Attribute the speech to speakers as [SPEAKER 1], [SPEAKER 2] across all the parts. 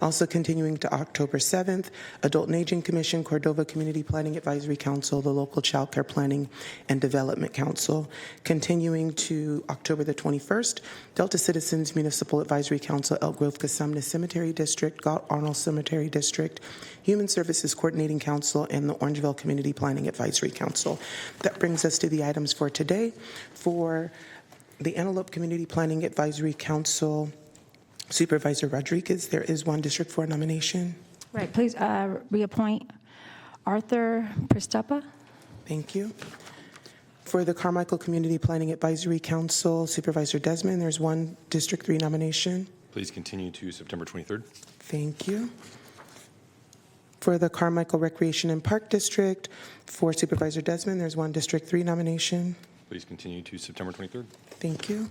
[SPEAKER 1] Also continuing to October 7th, Adult and Aging Commission, Cordova Community Planning Advisory Council, the local Child Care Planning and Development Council. Continuing to October the 21st, Delta Citizens Municipal Advisory Council, Elk Grove Casumna Cemetery District, Galt Arnold Cemetery District, Human Services Coordinating Council, and the Orangeville Community Planning Advisory Council. That brings us to the items for today. For the Antelope Community Planning Advisory Council, Supervisor Rodriguez, there is one District 4 nomination.
[SPEAKER 2] Right, please uh, reappoint Arthur Prestapa.
[SPEAKER 1] Thank you. For the Carmichael Community Planning Advisory Council, Supervisor Desmond, there's one District 3 nomination.
[SPEAKER 3] Please continue to September 23rd.
[SPEAKER 1] Thank you. For the Carmichael Recreation and Park District, for Supervisor Desmond, there's one District 3 nomination.
[SPEAKER 3] Please continue to September 23rd.
[SPEAKER 1] Thank you.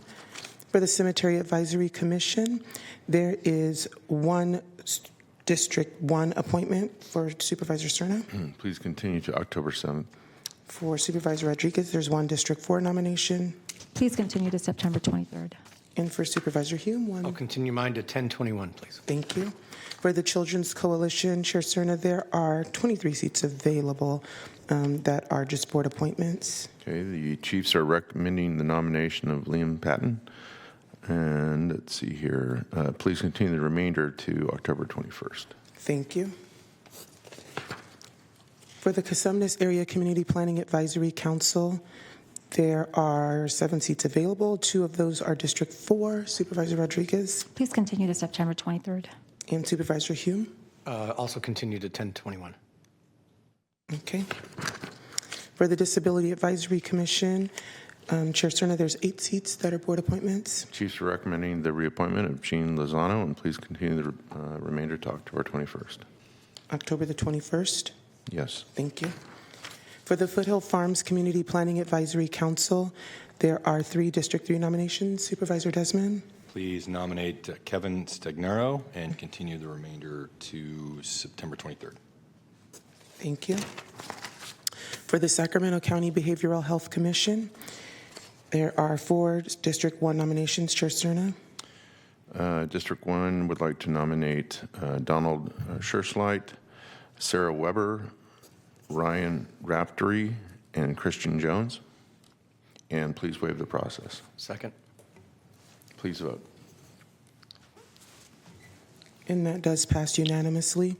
[SPEAKER 1] For the Cemetery Advisory Commission, there is one s- District 1 appointment for Supervisor Cerna.
[SPEAKER 4] Please continue to October 7th.
[SPEAKER 1] For Supervisor Rodriguez, there's one District 4 nomination.
[SPEAKER 2] Please continue to September 23rd.
[SPEAKER 1] And for Supervisor Hume,
[SPEAKER 5] I'll
[SPEAKER 1] one.
[SPEAKER 5] continue mine to 1021, please.
[SPEAKER 1] Thank you. For the Children's Coalition, Chair Cerna, there are 23 seats available um, that are just board appointments.
[SPEAKER 4] Okay, the Chiefs are recommending the nomination of Liam Patton. And let's see here, uh, please continue the remainder to October 21st.
[SPEAKER 1] Thank you. For the Casumnes Area Community Planning Advisory Council, there are seven seats available. Two of those are District 4, Supervisor Rodriguez
[SPEAKER 2] Please continue to September 23rd.
[SPEAKER 1] and Supervisor Hume.
[SPEAKER 5] Uh, Also continue to 1021.
[SPEAKER 1] Okay. For the Disability Advisory Commission, um, Chair Cerna, there's eight seats that are board appointments.
[SPEAKER 4] Chiefs are recommending the reappointment of Gene Lozano, and please continue the uh, remainder to October 21st.
[SPEAKER 1] October the 21st.
[SPEAKER 4] Yes.
[SPEAKER 1] Thank you. For the Foothill Farms Community Planning Advisory Council, there are three District 3 nominations. Supervisor Desmond?
[SPEAKER 3] Please nominate uh, Kevin Stagnaro and continue the remainder to September 23rd.
[SPEAKER 1] Thank you. For the Sacramento County Behavioral Health Commission, there are four District 1 nominations. Chair Cerna?
[SPEAKER 4] Uh, District 1 would like to nominate uh, Donald uh, Scherschleit, Sarah Weber, Ryan Raftery, and Christian Jones. And please waive the process.
[SPEAKER 5] Second?
[SPEAKER 4] Please vote.
[SPEAKER 1] And that does pass unanimously.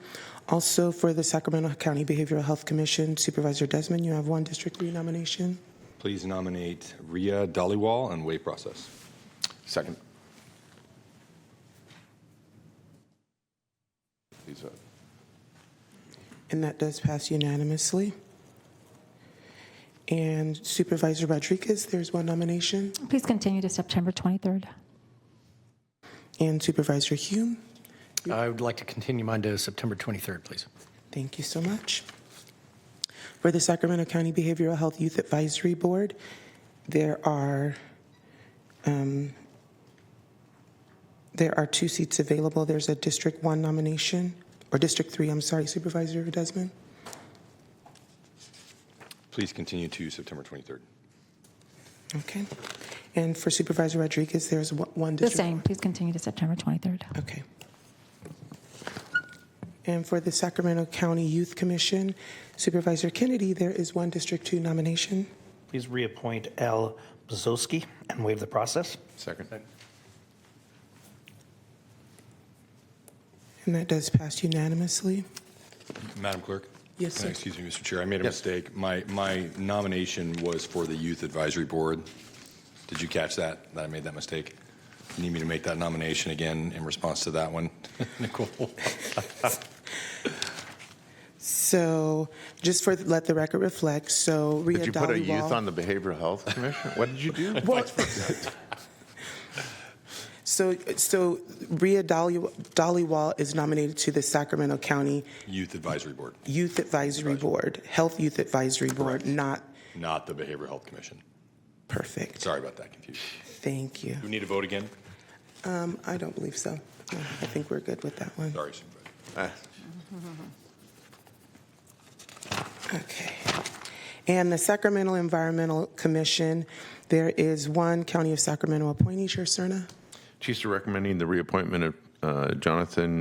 [SPEAKER 1] Also, for the Sacramento County Behavioral Health Commission, Supervisor Desmond, you have one District 3 nomination.
[SPEAKER 3] Please nominate Ria Dhaliwal and waive process.
[SPEAKER 4] Second. Please vote.
[SPEAKER 1] And that does pass unanimously. And Supervisor Rodriguez, there's one nomination.
[SPEAKER 2] Please continue to September 23rd.
[SPEAKER 1] And Supervisor Hume,
[SPEAKER 5] I would like to continue mine to September 23rd, please.
[SPEAKER 1] thank you so much. For the Sacramento County Behavioral Health Youth Advisory Board, there are, um, there are two seats available. There's a District 1 nomination, or District 3, I'm sorry, Supervisor Desmond.
[SPEAKER 3] Please continue to September 23rd.
[SPEAKER 1] Okay. And for Supervisor Rodriguez, there's one- one
[SPEAKER 2] The
[SPEAKER 1] District.
[SPEAKER 2] same, please continue to September 23rd.
[SPEAKER 1] Okay. And for the Sacramento County Youth Commission, Supervisor Kennedy, there is one District 2 nomination.
[SPEAKER 6] Please reappoint Al Bzoski and waive the process.
[SPEAKER 4] Second.
[SPEAKER 1] And that does pass unanimously.
[SPEAKER 3] Madam Clerk?
[SPEAKER 1] Yes,
[SPEAKER 3] Can I-
[SPEAKER 1] sir.
[SPEAKER 3] Excuse me, Mr. Chair, I made a mistake. My, my nomination was for the Youth Advisory Board. Did you catch that, that I made that mistake? You Need me to make that nomination again in response to that one? Nicole?
[SPEAKER 1] So just for, let the record reflect, so Rhea
[SPEAKER 4] Did you put a youth
[SPEAKER 1] Dhaliwal-
[SPEAKER 4] on the Behavioral Health Commission? What did you do?
[SPEAKER 1] Well- So, so Rhea Dhali- Dhaliwal is nominated to the Sacramento County
[SPEAKER 3] Youth Advisory Board,
[SPEAKER 1] Youth Advisory Board, Health Youth Advisory Board, not,
[SPEAKER 3] not the Behavioral Health Commission.
[SPEAKER 1] perfect.
[SPEAKER 3] Sorry about that confusion.
[SPEAKER 1] Thank you.
[SPEAKER 3] Do we need a vote again?
[SPEAKER 1] Um, I don't believe so. No, I think we're good with that one.
[SPEAKER 3] Sorry, Supervisor.
[SPEAKER 4] Ah.
[SPEAKER 1] Okay. And the Sacramento Environmental Commission, there is one County of Sacramento appointee, Chair Cerna.
[SPEAKER 4] Chiefs are recommending the reappointment of uh, Jonathan